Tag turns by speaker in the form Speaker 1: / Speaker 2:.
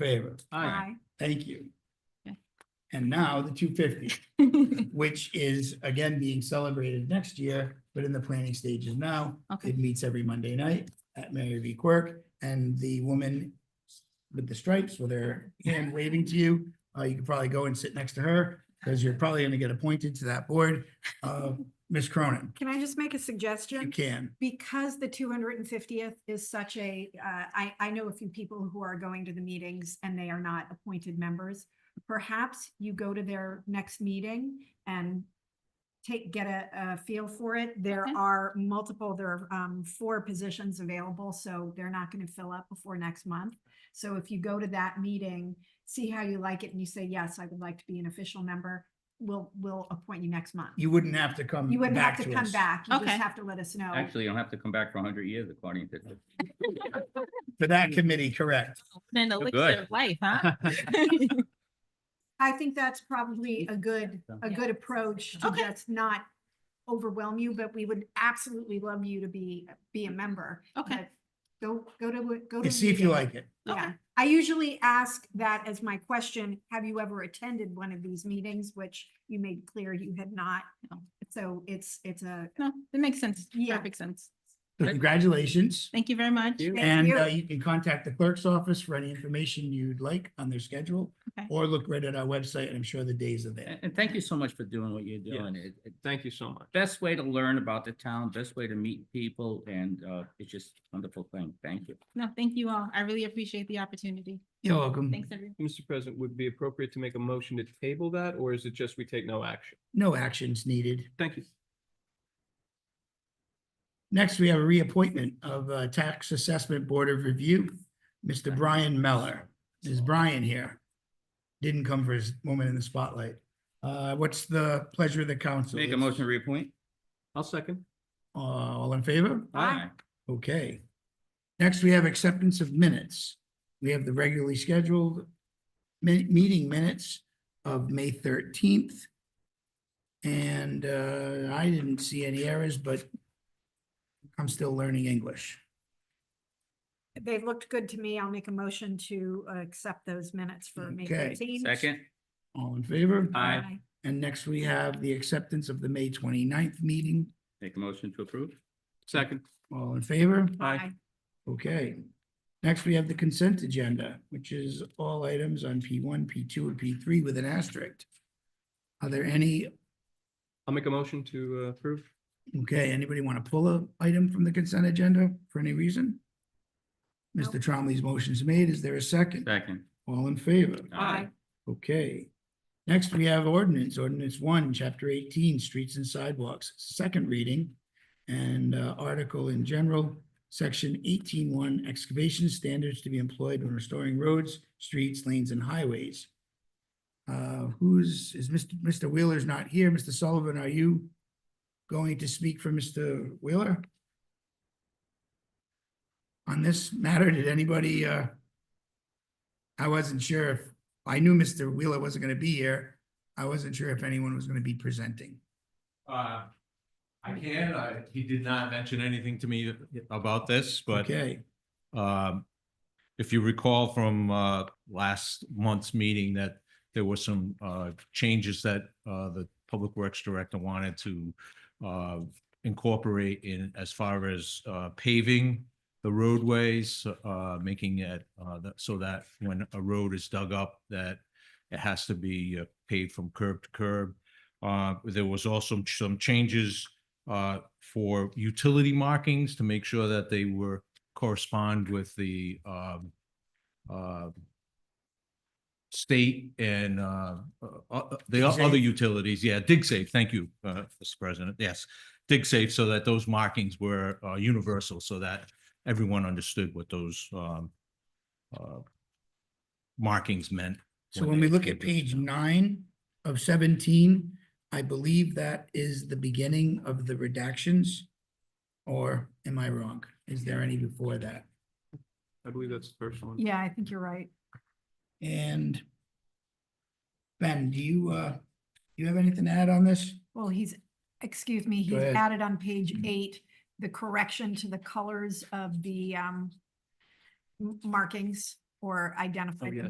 Speaker 1: favor?
Speaker 2: Aye.
Speaker 1: Thank you.
Speaker 3: Okay.
Speaker 1: And now the two fifty, which is again being celebrated next year, but in the planning stages now.
Speaker 3: Okay.
Speaker 1: It meets every Monday night at Mary V Quirk and the woman with the stripes with her hand waving to you. Uh, you could probably go and sit next to her because you're probably gonna get appointed to that board. Uh, Ms. Cronin,
Speaker 2: Can I just make a
Speaker 1: you
Speaker 2: suggestion?
Speaker 1: can.
Speaker 2: Because the two hundred and fiftieth is such a, uh, I, I know a few people who are going to the meetings and they are not appointed members. Perhaps you go to their next meeting and take, get a, a feel for it. There
Speaker 3: Okay.
Speaker 2: are multiple, there are, um, four positions available, so they're not gonna fill up before next month. So if you go to that meeting, see how you like it and you say, yes, I would like to be an official member, we'll, we'll appoint you next month.
Speaker 1: You wouldn't have to come
Speaker 2: You wouldn't have
Speaker 1: back
Speaker 2: to
Speaker 1: to
Speaker 2: come
Speaker 1: us.
Speaker 2: back. You just
Speaker 3: Okay.
Speaker 2: have to let us know.
Speaker 4: Actually, you don't have to come back for hundred years according to.
Speaker 1: For that committee, correct?
Speaker 3: Then
Speaker 4: You're
Speaker 3: elixir
Speaker 4: Oh, good.
Speaker 3: of life, huh?
Speaker 2: I think that's probably a good, a
Speaker 3: Yeah.
Speaker 2: good approach to
Speaker 3: Okay.
Speaker 2: just not overwhelm you, but we would absolutely love you to be, be a member.
Speaker 3: Okay.
Speaker 2: But Go, go to, a- go to.
Speaker 1: And
Speaker 2: a
Speaker 1: see if you
Speaker 2: meeting.
Speaker 1: like it.
Speaker 3: Okay.
Speaker 2: Yeah, I usually ask that as my question, have you ever attended one of these meetings, which you made clear you had not.
Speaker 3: No.
Speaker 2: So it's, it's a,
Speaker 3: No, it makes sense.
Speaker 2: Yeah.
Speaker 3: Perfect sense.
Speaker 1: So
Speaker 4: Right.
Speaker 1: Congratulations.
Speaker 3: Thank you very much.
Speaker 4: Thank you.
Speaker 1: And
Speaker 2: you.
Speaker 1: uh, you can contact the clerk's office for any information you'd like on their schedule.
Speaker 3: Okay.
Speaker 1: Or look right at our website and I'm sure the days are there.
Speaker 4: And, and thank you so much for doing what you're doing. It- it-
Speaker 5: Thank you so much.
Speaker 4: Best way to learn about the town, best way to meet people, and, uh, it's just a wonderful thing. Thank you.
Speaker 3: No, thank you all. I really appreciate the opportunity.
Speaker 1: You're welcome.
Speaker 3: Thanks, everyone.
Speaker 5: Mr. President, would it be appropriate to make a motion to table that, or is it just we take no action?
Speaker 1: No actions needed.
Speaker 5: Thank you.
Speaker 1: Next, we have a reappointment of uh, Tax Assessment Board of Review, Mr. Brian Meller. Is Brian here? Didn't come for his moment in the spotlight. Uh, What's the pleasure of the council?
Speaker 4: Make a motion to reappoint?
Speaker 5: I'll second.
Speaker 1: Uh, All in favor?
Speaker 4: Aye.
Speaker 1: Okay. Next, we have acceptance of minutes. We have the regularly scheduled mi- meeting minutes of May thirteenth. And uh, I didn't see any errors, but I'm still learning English.
Speaker 2: they looked good to me. I'll make a motion to uh, accept those minutes for May
Speaker 1: Okay.
Speaker 2: 13.
Speaker 4: Second?
Speaker 1: All in favor?
Speaker 4: Aye.
Speaker 1: And next, we have the acceptance of the May 29th meeting.
Speaker 4: Make a motion to approve?
Speaker 5: Second.
Speaker 1: All in favor?
Speaker 5: Aye.
Speaker 2: Aye.
Speaker 1: Okay. Next, we have the consent agenda, which is all items on P one, P two, and P three with an asterisk. Are there any,
Speaker 5: I'll make a motion to uh, approve.
Speaker 1: okay, anybody want to pull a item from the consent agenda for any reason? Mr. Tromley's motion's made. Is there a second?
Speaker 4: Second.
Speaker 1: All in favor?
Speaker 2: Aye.
Speaker 1: Okay. Next, we have ordinance, ordinance one, chapter eighteen, streets and sidewalks, second reading. And uh, article in general, section eighteen one, excavation standards to be employed when restoring roads, streets, lanes and highways. Uh, who's, is Mr. Mr. Wheeler's not here? Mr. Sullivan, are you going to speak for Mr. Wheeler? On this matter, did anybody, uh, I wasn't sure if I knew Mr. Wheeler wasn't gonna be here. I wasn't sure if anyone was gonna be presenting.
Speaker 6: Uh, I can, I, he did not mention anything to me about this, but,
Speaker 1: Okay,
Speaker 6: um, if you recall from, uh, last month's meeting that there were some, uh, changes that, uh, the Public Works Director wanted to, uh, incorporate in as far as, uh, paving the roadways, uh, making it, uh, that, so that when a road is dug up, that it has to be uh, paved from curb to curb. Uh, there was also some changes, uh, for utility markings to make sure that they were correspond with the um uh state and uh uh, uh, the o- other
Speaker 1: DigSafe?
Speaker 6: utilities, yeah, DigSafe, thank you, uh, Mr. President, yes. DigSafe so that those markings were uh universal so that everyone understood what those um uh markings meant.
Speaker 1: so when we look at page nine of seventeen, I believe that is the beginning of the redactions. Or am I wrong? Is there any before that?
Speaker 5: I believe that's the first one.
Speaker 2: Yeah, I think you're right.
Speaker 1: And Ben, do you, uh, you have anything to add on this?
Speaker 2: Well, he's, excuse me,
Speaker 1: Go
Speaker 2: he's
Speaker 1: ahead. Mm-hmm.
Speaker 2: added on page
Speaker 6: Mhm.
Speaker 2: eight, the correction to
Speaker 1: Oh,
Speaker 2: the colors of the um m- markings or identified
Speaker 5: yeah.